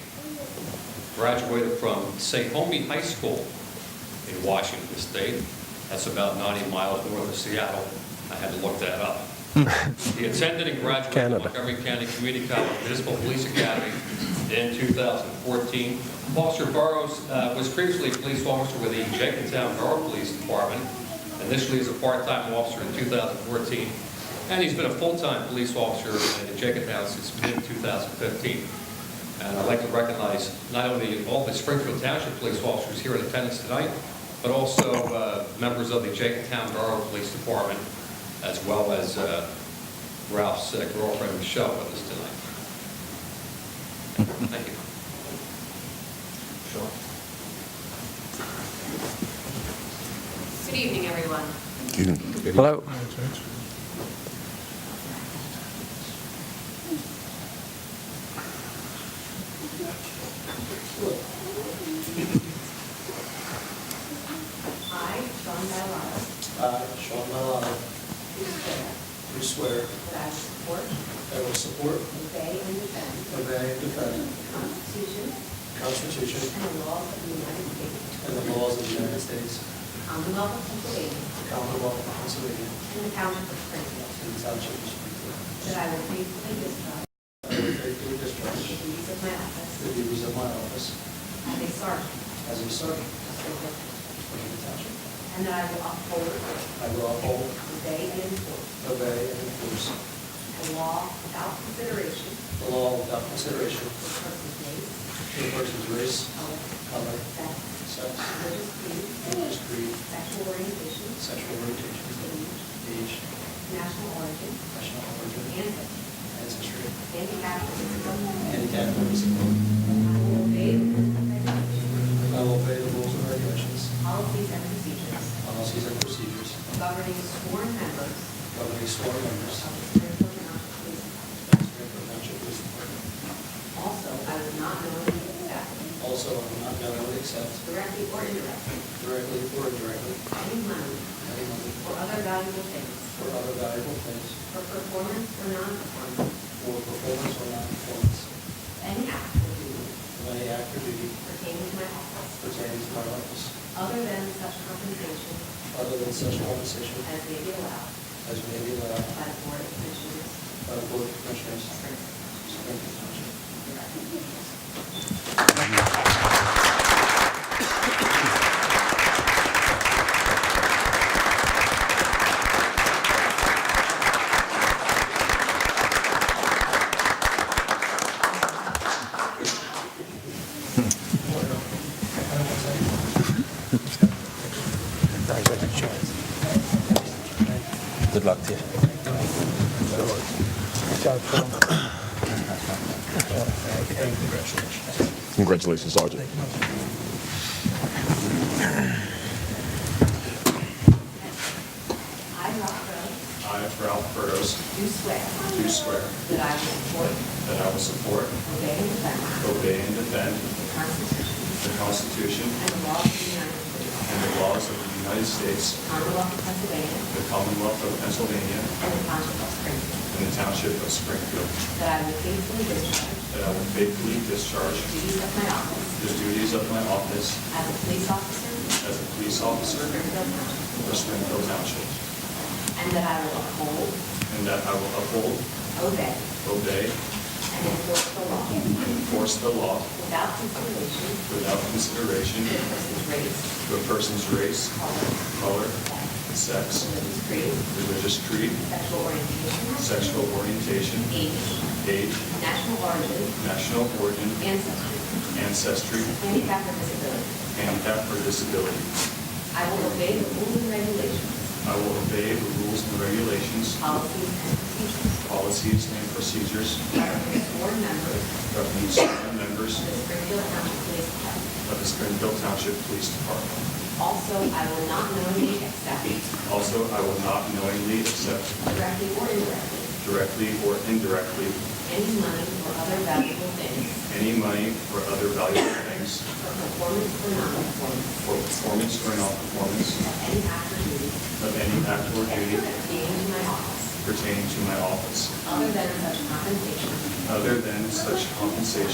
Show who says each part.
Speaker 1: graduated from Sahomie High School in Washington State. That's about 90 miles north of Seattle. I had to look that up. He attended and graduated
Speaker 2: Canada.
Speaker 1: Montgomery County Community College Municipal Police Academy in 2014. Officer Burrows uh, was previously a police officer with the Jenkintown Borough Police Department, initially as a part-time officer in 2014, and he's been a full-time police officer in Jenkintown since mid-2015. And I'd like to recognize not only all the Springfield Township police officers here in attendance tonight, but also uh, members of the Jenkintown Borough Police Department, as well as uh, Ralph's uh, girlfriend Michelle with us tonight. Thank you.
Speaker 3: Good evening, everyone.
Speaker 2: Hello.
Speaker 3: I, John Mallon,
Speaker 4: I, Sean Malata,
Speaker 3: do swear
Speaker 4: do swear
Speaker 3: that I will support,
Speaker 4: that I will support,
Speaker 3: obey, and defend
Speaker 4: obey, and defend
Speaker 3: the Constitution
Speaker 4: the Constitution
Speaker 3: and the laws of the United States,
Speaker 4: and the laws of the United States,
Speaker 3: Commonwealth of Pennsylvania,
Speaker 4: the Commonwealth of Pennsylvania,
Speaker 3: and the Township of Springfield,
Speaker 4: and the Township of Springfield.
Speaker 3: that I will faithfully discharge
Speaker 4: I will faithfully
Speaker 3: the
Speaker 4: discharge
Speaker 3: duties of my office
Speaker 4: the duties of my office
Speaker 3: as a sergeant
Speaker 4: as a sergeant
Speaker 3: of Springfield,
Speaker 4: of the Township.
Speaker 3: and that I will uphold,
Speaker 4: I will uphold,
Speaker 3: obey, and enforce
Speaker 4: obey, and enforce
Speaker 3: the law without consideration
Speaker 4: the law without consideration
Speaker 3: for person's race,
Speaker 4: to a person's race,
Speaker 3: color,
Speaker 4: color,
Speaker 3: sex,
Speaker 4: sex,
Speaker 3: religious creed,
Speaker 4: religious creed,
Speaker 3: sexual orientation,
Speaker 4: sexual orientation, age,
Speaker 3: national origin,
Speaker 4: national origin,
Speaker 3: ancestry,
Speaker 4: ancestry,
Speaker 3: handicap, or disability.
Speaker 4: handicap, or disability.
Speaker 3: I will obey the rules and regulations,
Speaker 4: I will obey the rules and regulations,
Speaker 3: policies, and procedures
Speaker 4: policies, and procedures
Speaker 3: governing sworn members
Speaker 4: governing sworn members
Speaker 3: of the Springfield Township Police Department.
Speaker 4: of the Springfield Township Police Department.
Speaker 3: Also, I will not knowingly accept,
Speaker 4: Also, I will not knowingly accept
Speaker 3: directly or indirectly,
Speaker 4: directly or indirectly
Speaker 3: any money
Speaker 4: any money
Speaker 3: or other valuable things
Speaker 4: or other valuable things
Speaker 3: for performance or non-performance
Speaker 4: for performance or non-performance
Speaker 3: of any act or duty
Speaker 4: of any act or duty
Speaker 3: pertaining to my office,
Speaker 4: pertaining to my office,
Speaker 3: other than such compensation
Speaker 4: other than such compensation
Speaker 3: as may be allowed
Speaker 4: as may be allowed
Speaker 3: by the Board of Commissioners
Speaker 4: by the Board of Commissioners
Speaker 3: of
Speaker 4: of
Speaker 3: Springfield.
Speaker 4: Springfield Township.
Speaker 5: Good luck to you.
Speaker 6: Congratulations, Sergeant.
Speaker 3: I, Ralph Rhodes,
Speaker 7: I, Ralph Burrows,
Speaker 3: do swear
Speaker 7: do swear
Speaker 3: that I will support,
Speaker 7: that I will support,
Speaker 3: obey, and defend
Speaker 7: obey, and defend
Speaker 3: the Constitution
Speaker 7: the Constitution
Speaker 3: and the laws of the United States,
Speaker 7: and the laws of the United States,
Speaker 3: Commonwealth of Pennsylvania,
Speaker 7: the Commonwealth of Pennsylvania,
Speaker 3: and the Township of Springfield,
Speaker 7: and the Township of Springfield,
Speaker 3: that I will faithfully discharge the
Speaker 7: that I will faithfully discharge
Speaker 3: duties of my office
Speaker 7: the duties of my office
Speaker 3: as a police officer
Speaker 7: as a police
Speaker 3: for
Speaker 7: officer
Speaker 3: Springfield Township,
Speaker 7: for Springfield Township,
Speaker 3: and that I will uphold,
Speaker 7: and that I will uphold,
Speaker 3: obey,
Speaker 7: obey,
Speaker 3: and enforce the law
Speaker 7: and enforce the law
Speaker 3: without consideration
Speaker 7: without consideration
Speaker 3: to a person's race,
Speaker 7: to a person's race,
Speaker 3: color,
Speaker 7: color,
Speaker 3: sex,
Speaker 7: sex,
Speaker 3: religious creed,
Speaker 7: religious creed,
Speaker 3: sexual orientation,
Speaker 7: sexual orientation,
Speaker 3: age,
Speaker 7: age,
Speaker 3: national origin,
Speaker 7: national origin,
Speaker 3: ancestry,
Speaker 7: ancestry,
Speaker 3: handicap, or disability.
Speaker 7: handicap, or disability.
Speaker 3: I will obey the rules and regulations,
Speaker 7: I will obey the rules and regulations,
Speaker 3: policies, and procedures
Speaker 7: policies, and procedures
Speaker 3: governing sworn members
Speaker 7: governing sworn members
Speaker 3: of the Springfield County Police Department.
Speaker 7: of the Springfield Township Police Department.
Speaker 3: Also, I will not knowingly accept,
Speaker 7: Also, I will not knowingly accept
Speaker 3: directly or indirectly,
Speaker 7: directly or indirectly
Speaker 3: any money or other valuable things
Speaker 7: any money or other valuable things
Speaker 3: for performance or non-performance
Speaker 7: for performance or non-performance
Speaker 3: of any act or duty
Speaker 7: of any act or duty
Speaker 3: pertaining to my office,
Speaker 7: pertaining to my office,
Speaker 3: other than such compensation
Speaker 7: other than such compensation